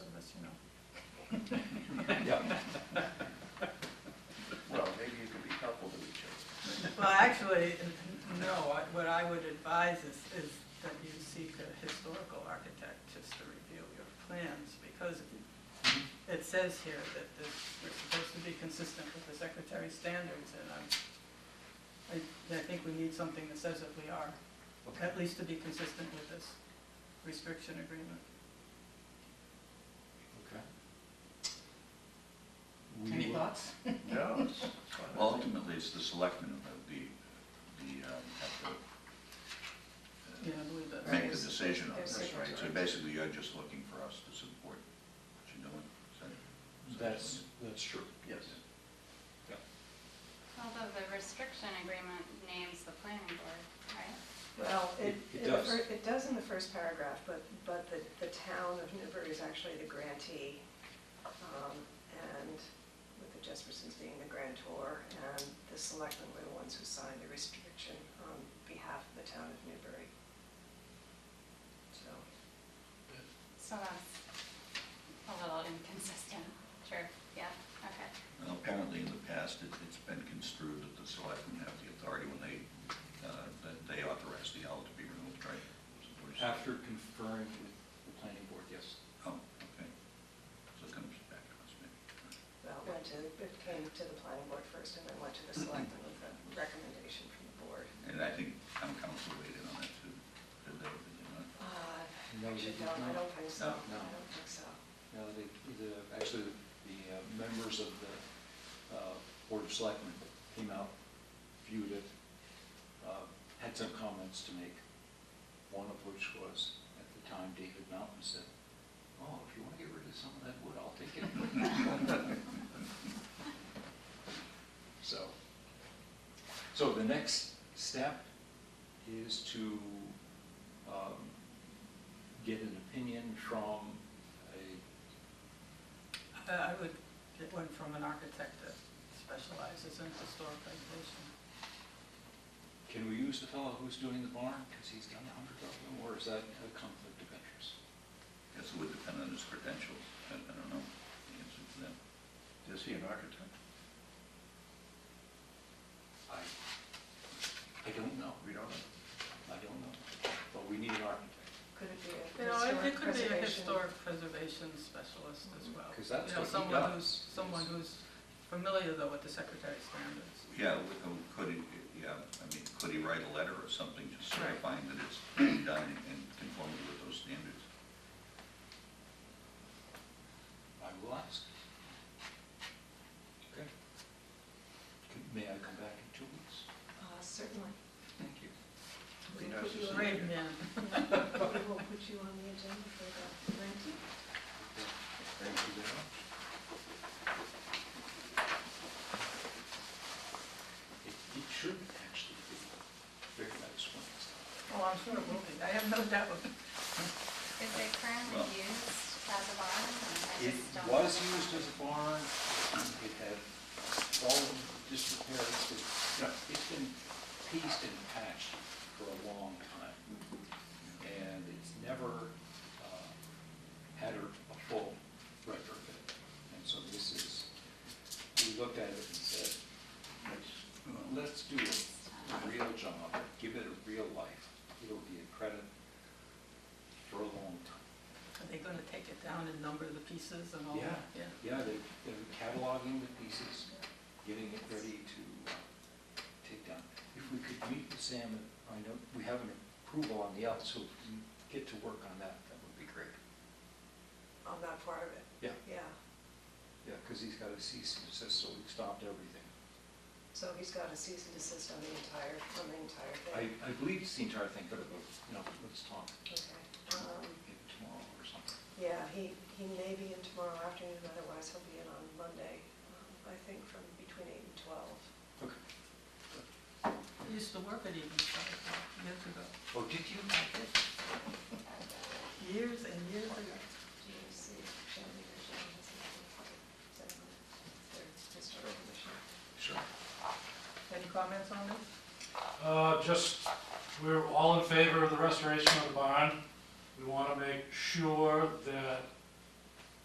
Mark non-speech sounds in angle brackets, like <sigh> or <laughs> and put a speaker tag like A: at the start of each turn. A: Yeah. Well, maybe you could be helpful to each other.
B: Well, actually, n- no, I- what I would advise is, is that you seek a historical architect just to review your plans, because it says here that this, we're supposed to be consistent with the secretary's standards, and I'm, I, I think we need something that says that we are, at least to be consistent with this restriction agreement.
C: Okay. We
B: Any
C: will-
B: thoughts?
A: No, it's it's fine.
D: Well, Ultimately, it's the selectmen who have the, the, um, have to
B: Yeah,
D: uh,
B: I believe that.
D: make the decision on this,
A: There's-
D: right? So basically, you're just looking for us to support what you're doing, is that?
C: That's, that's true.
A: Yes.
E: Although the restriction agreement names the planning board, right?
F: Well, it,
C: It
F: it the
C: does.
F: fir- it does in the first paragraph, but, but the, the town of Newbury is actually the grantee, um, and with the Jespersons being the grantor, and the selectmen were the ones who signed the restriction on behalf of the town of Newbury. So,
E: So that's a little inconsistent. Sure, yeah, okay.
D: Well, Apparently, in the past, it- it's been construed that the selectmen have the authority when they, uh, that they authorize the owl to be removed, right? Is that what you said?
C: After conferring with the planning board, yes.
D: Oh, okay. So it comes back to us, maybe.
F: well, it went to, it came to the planning board first, and then went to the selectmen with a recommendation from the board.
D: And I think town council weighed in on that too. Did they, did they not?
F: Uh,
C: No, they
F: actually,
C: did
F: no, I
C: not.
F: don't think so,
C: No.
F: I don't think so.
C: Now, the, the, actually, the uh, members of the uh, Board of Selectmen came out, viewed it, uh, had some comments to make, one of which was, at the time, David Mountain said, oh, if you want to get rid of some of that wood, I'll take it. <laughs> So, so the next step is to um, get an opinion from a
B: Uh, I would get one from an architect that specializes in historic preservation.
C: Can we use the fellow who's doing the barn, because he's done a hundred of them, or is that a conflict of interest?
D: Guess it would depend on his credentials. I I don't know the answer to that. Is he an architect?
C: I, I don't know,
D: We don't know.
C: I don't know, but we need an architect,
F: Could it be
B: You
F: a
B: know, it-
F: historic
B: it could be a
F: preservation?
B: historic preservation specialist as well.
C: because Mm, that's
B: You know,
C: what he
B: someone
C: does.
B: who's, someone who's familiar though with the secretary's standards.
D: Yeah, we- um, could he, yeah, I mean, could he write a letter or something just
B: Right.
D: certifying that it's been done in conformity with those standards?
C: I will ask. Okay. Could- May I come back in two weeks?
F: Uh, Certainly.
C: Thank you.
D: Be nice to see him
B: Great
D: again.
B: man.
F: <laughs> We will put you on the agenda for the nineteenth.
C: Thank you very much. It, it should actually be very nice when it's done.
B: Oh, I'm sure it will be. I have no doubt.
E: Is it currently
D: Well-
E: used as a barn? I
C: It
E: just don't-
C: was used as a barn, it had fallen disrepair, it's been, you know, it's been pieced and patched for a long time. And it's never uh, had a a full retrofit. And so this is, we looked at it and said, let's, let's do a real job, give it a real life. It'll be a credit for a long time.
B: Are they gonna take it down and number the pieces and all
C: Yeah.
B: that? Yeah.
C: Yeah, they're, they're cataloging the pieces, getting it ready to uh, take down. If we could meet with Sam, I know, we have an approval on the out, so if we can get to work on that, that would be great.
F: On that part of it?
C: Yeah.
F: Yeah,
C: Yeah, because he's got a cease and desist, so we've stopped everything.
F: so he's got a cease and desist on the entire, on the entire
C: I,
F: thing.
C: I believe it's the entire thing, but, uh, you know, let's talk
F: Okay. Um,
C: maybe tomorrow or something.
F: Yeah, he, he may be in tomorrow afternoon, otherwise he'll be in on Monday, um, I think from between eight and twelve.
C: Okay.
B: I used to work at Eaton Star years ago,
C: Oh, did you like it?
B: years and years ago.
F: Do you see if Shannon or John has anything to say on their historic commission?
C: Sure.
B: Any comments on this?
G: Uh, Just, we're all in favor of the restoration of the barn. We want to make sure that